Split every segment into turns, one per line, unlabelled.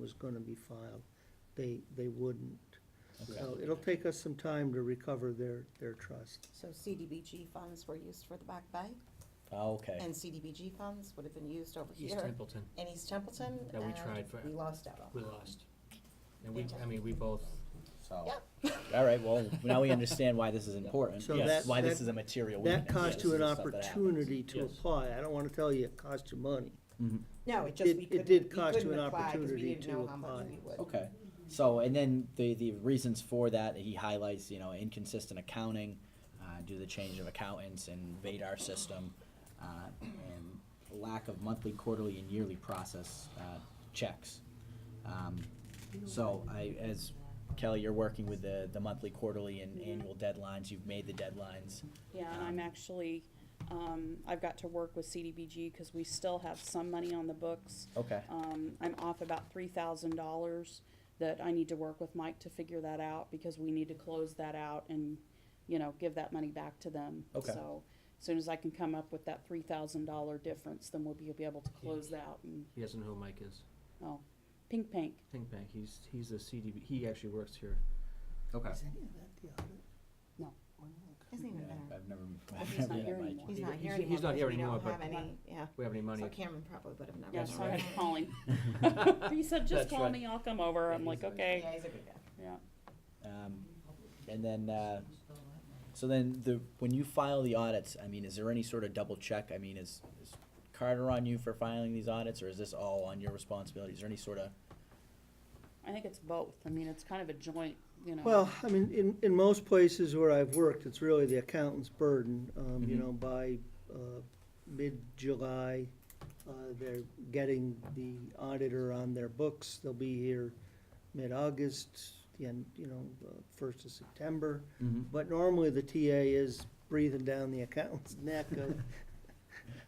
was gonna be filed. They, they wouldn't.
Okay.
So it'll take us some time to recover their, their trust.
So CDBG funds were used for the Back Bay,
Oh, Okay.
and CDBG funds would have been used over
East
here
Templeton,
in East Templeton,
That we
and
tried for-
we lost out on.
we lost. And we, I mean, we both,
So,
Yep.
All right, well, now we understand why this is important,
So
yes,
that-
why this
that-
is a material weakness.
That cost
This
you an
is the stuff that happens.
opportunity to
Yes.
apply. I don't wanna tell you it cost you money.
Mhm.
No, it just,
It-
we
it
couldn't, we
did cost you
couldn't
an
apply, because we
opportunity
didn't
to
know how much
apply.
we would.
Okay, so, and then the, the reasons for that, he highlights, you know, inconsistent accounting, uh, due to the change of accountants and VADAR system, uh, and lack of monthly, quarterly, and yearly process, uh, checks. Um, so I, as Kelly, you're working with the, the monthly, quarterly, and annual deadlines, you've made the deadlines.
Yeah, and I'm actually, um, I've got to work with CDBG because we still have some money on the books.
Okay,
Um, I'm off about three thousand dollars that I need to work with Mike to figure that out because we need to close that out and, you know, give that money back to them.
Okay.
So as soon as I can come up with that three thousand dollar difference, then we'll be, be able to close out and,
he doesn't know who Mike is.
oh, pink pink.
Think back, he's, he's a CDB, he actually works here.
okay.
Is any of that the audit?
No.
Doesn't
Yeah,
even matter.
I've never,
he's
I've never
not
met
here
Mike.
anymore.
He's
He's-
not here
he's-
anymore.
he's not here
because we
anymore,
don't have
but-
any, yeah.
We have any money.
So Cameron probably would have never.
Yeah, so I had to
known.
call him. He said, just
That's
call
right.
me, I'll come over. I'm
Yeah,
like,
he's-
okay.
Yeah, he's a good guy.
Yeah.
Um, and then, uh, so then the, when you file the audits, I mean, is there any sort of double check? I mean, is, is Carter on you for filing these audits, or is this all on your responsibility? Is there any sort of,
I think it's both. I mean, it's kind of a joint, you know.
Well, I mean, in, in most places where I've worked, it's really the accountant's burden. Um, you
Mhm.
know, by, uh, mid-July, uh, they're getting the auditor on their books. They'll be here mid-August, the end, you know, uh, first of September. But normally the TA is breathing down the accountant's neck of,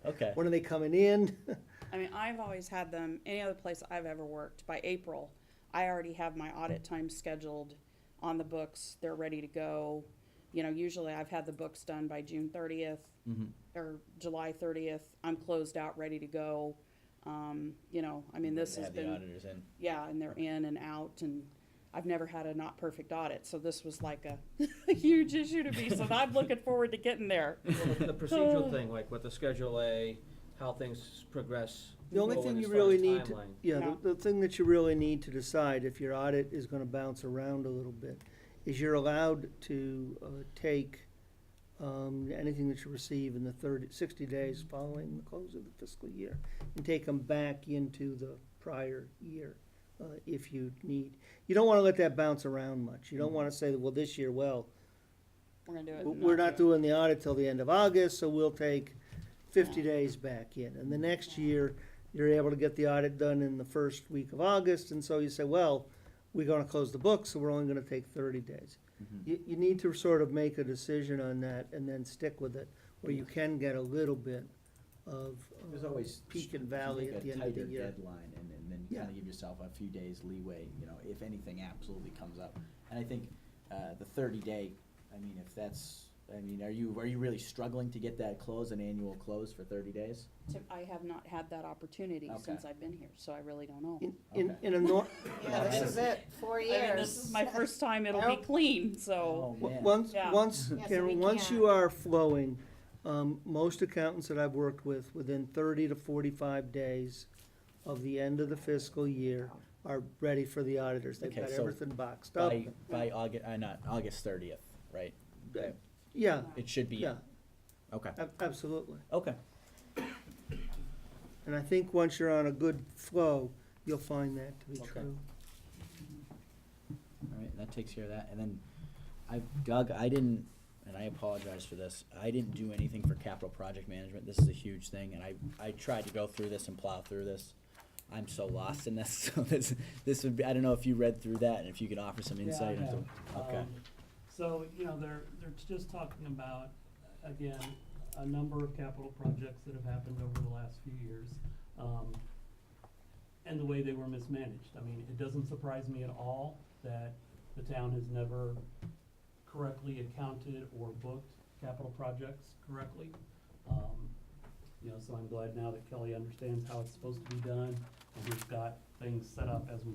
okay,
when are they coming in?
I mean, I've always had them, any other place I've ever worked, by April, I already have my audit time scheduled on the books, they're ready to go. You know, usually I've had the books done by June thirtieth
Mhm.
or July thirtieth, I'm closed out, ready to go. Um, you know, I mean, this
They
has
have the
been,
auditors in?
yeah, and they're in and out, and I've never had a not perfect audit, so this was like a, a huge issue to me, so I'm looking forward to getting there.
Well, The the procedural thing, like with the Schedule A, how things progress.
The only
going
thing
as
you
far
really
as
need to,
timeline.
yeah,
No.
the, the thing that you really need to decide if your audit is gonna bounce around a little bit, is you're allowed to, uh, take, um, anything that you receive in the thirty, sixty days following the close of the fiscal year, and take them back into the prior year, uh, if you need. You don't wanna let that bounce around much. You don't wanna say, well, this year, well,
We're gonna do it.
w-
and
we're
do
not
it.
doing the audit till the end of August, so we'll take fifty days back in. And the next year, you're able to get the audit done in the first week of August, and so you say, well, we're gonna close the books, so we're only gonna take thirty days.
Mhm.
You, you need to sort of make a decision on that and then stick with it, where you can get a little bit of. uh,
There's always.
Peak and valley
make
at
a
the end of the
tighter
year.
Deadline, and, and then kind
Yeah.
of give yourself a few days leeway, you know, if anything absolutely comes up. And I think, uh, the thirty day, I mean, if that's, I mean, are you, are you really struggling to get that close, an annual close for thirty days?
So I have not had that opportunity
Okay.
since I've been here, so I really don't know.
In, in,
Okay.
in a nor-
Yeah, this is it, four
I
years.
mean, this is my first time it'll be
Nope.
clean, so,
Oh, man.
Once,
Yeah.
once,
Yeah, so
Karen,
we
once you
can't-
are flowing, um, most accountants that I've worked with, within thirty to forty-five days of the end of the fiscal year, are ready for the auditors. They've
Okay,
got
so
everything boxed up.
By, by August, uh, not, August thirtieth, right?
Uh, Yeah,
It should be,
yeah,
okay,
ab- absolutely.
okay,
And I think once you're on a good flow, you'll find that to be
Okay.
true.
all right, that takes care of that, and then, I, Doug, I didn't, and I apologize for this, I didn't do anything for capital project management, this is a huge thing, and I, I tried to go through this and plow through this. I'm so lost in this, so this, this would be, I don't know if you read through that, and if you could offer some
Yeah, I
insight into.
have.
Okay,
Um, So, you know, they're, they're just talking about, again, a number of capital projects that have happened over the last few years. um, And the way they were mismanaged. I mean, it doesn't surprise me at all that the town has never correctly accounted or booked capital projects correctly. Um, You know, so I'm glad now that Kelly understands how it's supposed to be done, and we've got things set up as we